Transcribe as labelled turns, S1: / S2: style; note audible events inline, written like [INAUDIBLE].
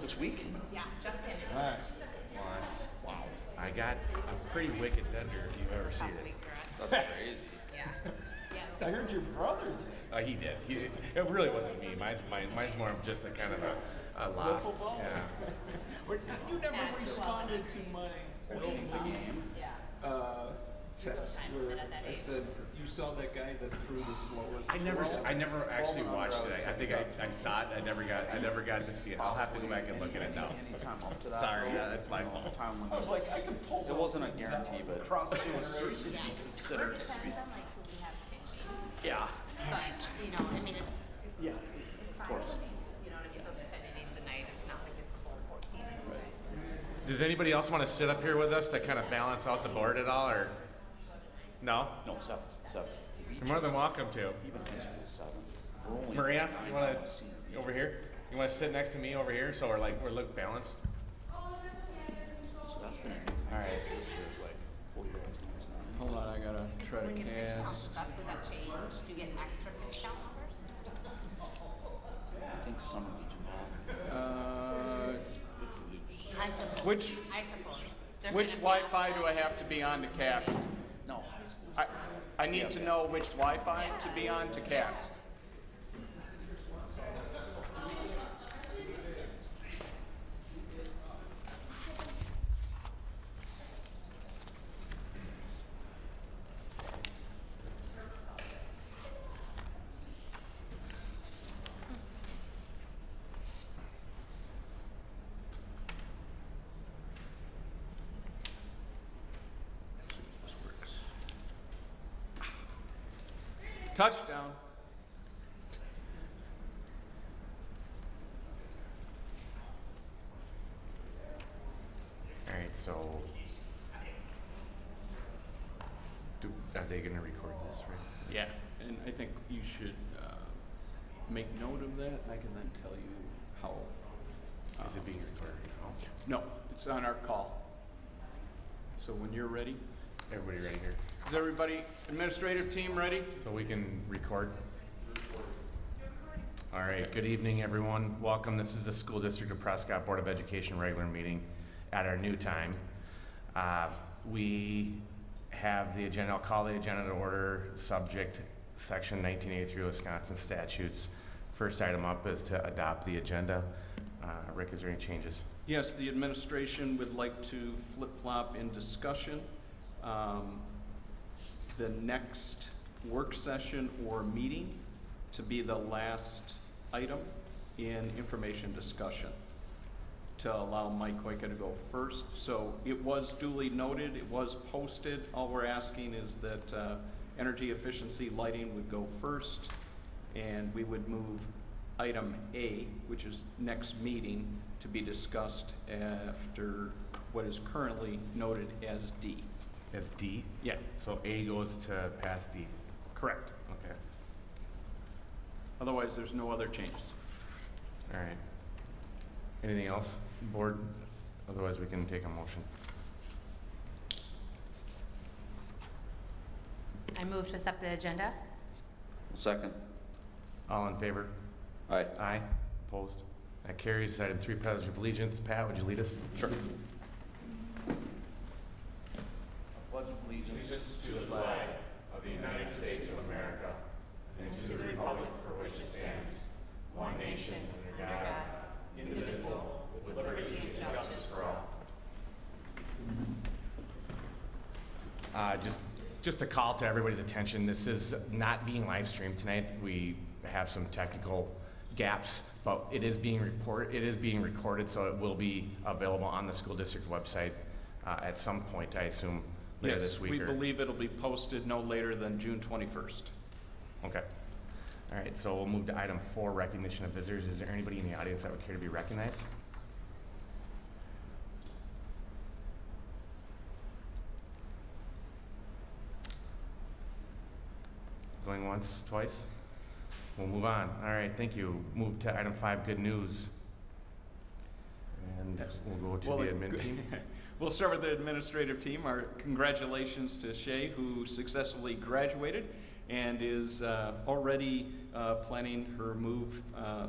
S1: This week?
S2: Yeah, just in it.
S3: Alright.
S1: Wow. I got a pretty wicked vendor if you've ever seen
S2: Tough
S1: it.
S2: week for us.
S4: That's crazy.
S2: Yeah.
S3: I
S2: Yeah.
S3: heard your brother did.
S1: Uh, he did. He, it really wasn't me. Mine's, mine, mine's more of just a kind of a, a loft.
S3: football?
S1: Yeah.
S3: You never
S2: At
S3: responded to my game
S2: Yeah.
S3: uh, text
S2: Time
S3: where
S2: at that
S3: I
S2: age.
S3: said, you saw that guy that threw the slowest.
S1: I never, s-
S3: ball?"
S1: I never actually
S4: Ball
S1: watched it.
S4: routes.
S1: I, I think I, I saw it. I never got, I never got to see it. I'll have to go back and look at it now.
S4: Anytime up to that.
S1: Sorry,
S4: though,
S1: yeah, that's my
S4: you know,
S1: fault.
S4: Time when
S3: I was like, I can pull.
S4: it wasn't a guarantee, but
S3: [LAUGHS] Cross generation.
S2: Yeah.
S4: considered it to
S2: Sometimes
S4: be.
S2: I'm like, well, we have pitching.
S4: Yeah.
S2: But, you know, I mean, it's, it's
S4: Yeah.
S2: fine.
S4: course.
S2: You know what I mean? So it's 10 innings a night. It's not like it's full 14 innings.
S1: Does anybody else want to sit up here with us to kind of balance out the board at all, or? No?
S4: No, seven. Seven.
S1: You're more than welcome to.
S4: Even high school seven. We're only
S1: Maria,
S4: nine
S1: you
S4: on
S1: want
S4: a senior.
S1: to over here? You want to sit next to me over here so we're like we're look balanced.
S4: So that's been a good thing. All right. This year's like, well, you guys know it's not.
S5: Hold on, I gotta try to
S2: When you pitch out
S5: cast.
S2: stuff, does that change? Do you get extra pitch count numbers?
S4: I think some of each involved.
S5: Uh,
S4: It's loose.
S2: I suppose.
S5: Which-
S2: I suppose. They're
S5: which
S2: kind of-
S5: Wi-Fi do I have to be on to cast?
S4: No, high school.
S5: I, I need to know which Wi-Fi to be on to cast. Touchdown.
S1: All right, so do, are they going to record this right?
S5: Yeah, and I think you should uh, make note of that, and I can then tell you how.
S1: Is it being recorded? Oh, now?
S5: No, it's on our call. So when you're ready,
S1: Everybody ready here?
S5: is everybody administrative team ready?
S1: So we can record? All right, good evening, everyone. Welcome. This is the School District of Prescott Board of Education regular meeting at our new time. Uh, We have the agenda, I'll call the agenda to order, subject section 1983 Wisconsin statutes. First item up is to adopt the agenda. Uh, Rick, is there any changes?
S5: Yes, the administration would like to flip-flop in discussion. Um, The next work session or meeting to be the last item in information discussion to allow Mike Koika to go first. So it was duly noted, it was posted. All we're asking is that uh, energy efficiency lighting would go first, and we would move item A, which is next meeting, to be discussed after what is currently noted as D.
S1: It's D.
S5: Yeah,
S1: So A goes to pass D.
S5: correct.
S1: Okay,
S5: Otherwise, there's no other changes.
S1: all right. Anything else, board? Otherwise, we can take a motion.
S2: I move to accept the agenda.
S4: Second.
S1: All in favor?
S4: All right.
S1: Aye. Opposed? That carries. Item three, pledge of allegiance. Pat, would you lead us? Sure.
S4: Pledge of allegiance.
S1: Uh, just, just a call to everybody's attention. This is not being live streamed tonight. We have some technical gaps, but it is being report, it is being recorded, so it will be available on the school district website uh, at some point, I assume, later
S5: Yes,
S1: this week.
S5: We
S1: or-
S5: believe it'll be posted no later than June 21st.
S1: Okay. All right, so we'll move to item four, recognition of visitors. Is there anybody in the audience that would care to be recognized? Going once, twice? We'll move on. All right, thank you. Move to item five, good news. And we'll go to
S5: Well,
S1: the
S5: it-
S1: admin team.
S5: We'll start with the administrative team. Our congratulations to Shay, who successfully graduated and is uh, already uh, planning her move uh,